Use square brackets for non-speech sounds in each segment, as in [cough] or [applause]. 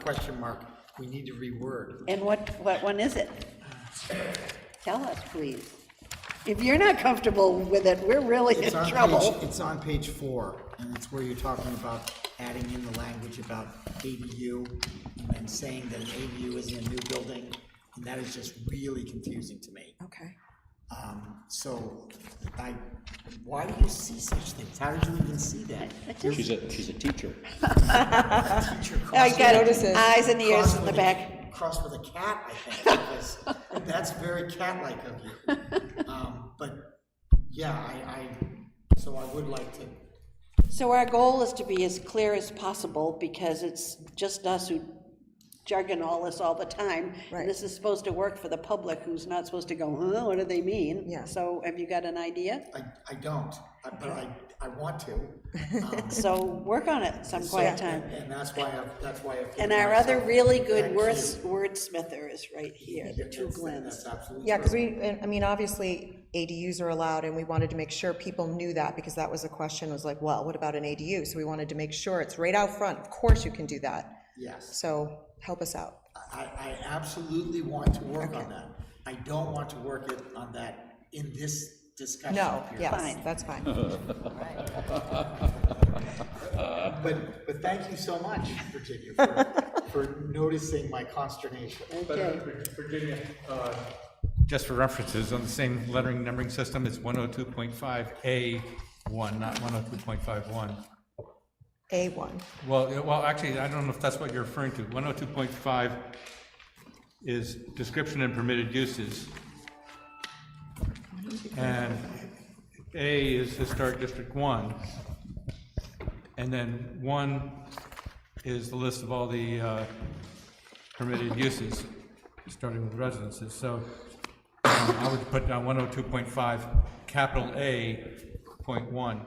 question mark, we need to reword. And what, what one is it? Tell us, please. If you're not comfortable with it, we're really in It's on page- trouble. It's on page four, and it's where you're talking about adding in the language about ADU, and then saying that an ADU is in a new building, and that is just really confusing to me. Okay. Um, So, I, why do you see such things? How did you even see that? She's a, she's a teacher. Teacher I crossed- got notices. eyes and ears crossed in the with a- back. Crossed with a cat, I think, [laughs] because that's very cat-like of [laughs] you. Um, But, yeah, I, I, so I would like to So our goal is to be as clear as possible, because it's just us who jargon all this all the time. Right. And this is supposed to work for the public, who's not supposed to go, huh, what do they mean? Yeah. So have you got an idea? [laughs] I, I don't, I- but I, I want to. um, So work on it some [laughs] quiet so- time. And that's why I, that's why I. feel And our other myself really good that words- cute. wordsmither is right here, the two That's- Glens. That's absolutely. Yeah, because true. we, and- I mean, obviously, ADUs are allowed, and we wanted to make sure people knew that, because that was a question, was like, well, what about an ADU? So we wanted to make sure it's right out front, of course you can do that, Yes, so help us out. I, I absolutely want to work on that. I don't want to work it on that in this discussion No, here. yes, Fine. that's fine. But, but thank you so much, Virginia, for, for noticing my consternation. Okay, Virginia, uh, just for references, on the same lettering numbering system, it's 102.5A1, not 102.51. A1, Well, yeah, well, actually, I don't know if that's what you're referring to. 102.5 is description and permitted uses. And A is historic district one. And then one is the list of all the uh, permitted uses, starting with residences. So um, I would put down 102.5, capital A, point one.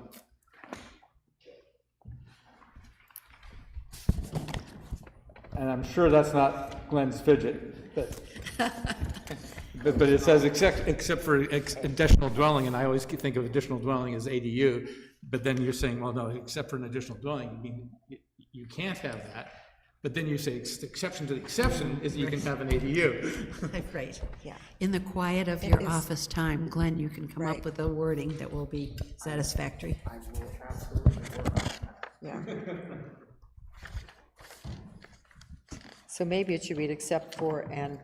And I'm sure that's not Glenn's fidget, but, but but it says except, except for ex- additional dwelling, and I always think of additional dwelling as ADU, but then you're saying, well, no, except for an additional dwelling, you mean, you, you can't have that. But then you say, ex- exception to the exception is you can have an ADU. [laughs] [laughs] Right. yeah. In the quiet of your is- office time, Glenn, you can come Right. up with a wording that will be satisfactory. Yeah, So maybe it should read except for and,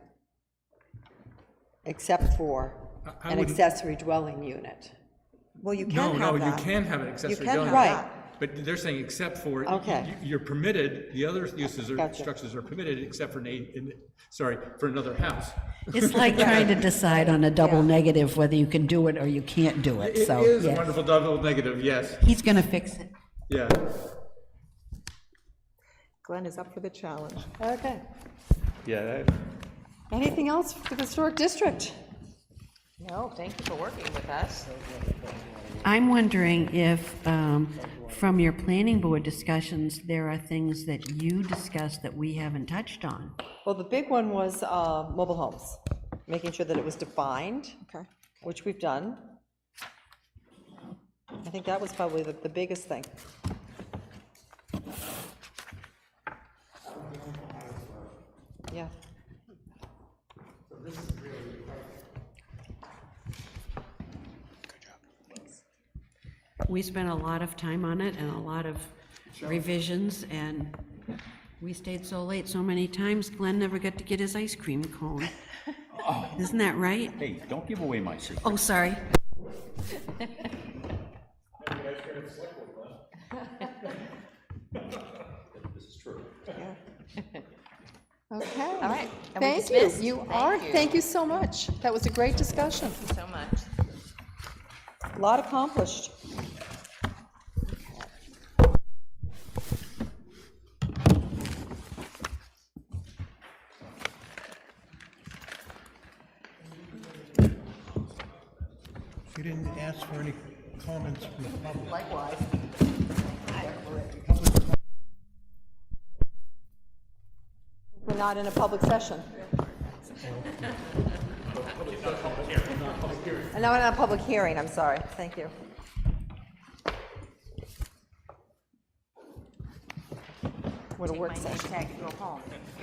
except for I- I an wouldn't- accessory dwelling unit. well, you [laughs] No, can no, have that. you can have an accessory can dwelling. have Right. But they're saying except for. Okay. you- You're permitted, the other uses or Gotcha. structures are permitted except for an, A- in- sorry, for another house. It's like trying to decide on a double negative whether you can do it or you can't do it, It so, is yeah. wonderful double negative, yes, He's going to fix it. yeah. Glenn is up for the challenge. Okay. Yeah. Anything else for the historic district? No, thank you for working with us. I'm wondering if, um, from your planning board discussions, there are things that you discussed that we haven't touched on. Well, the big one was uh, mobile homes, making sure that it was defined, Okay, which we've done. I think that was probably the, the biggest thing. Yeah. We spent a lot of time on it and a lot of revisions, and we stayed so late so many times, Glenn never got to get his ice cream cone. Isn't that right? Hey, don't give away my secret. Oh, sorry. Okay. All right. Thank you. You are, thank you so much. That was a great discussion. A lot accomplished. You didn't ask for any comments from the public. We're not in a public session. and now we're on a public hearing, I'm sorry, thank you. What a work session. Take my name tag and go home.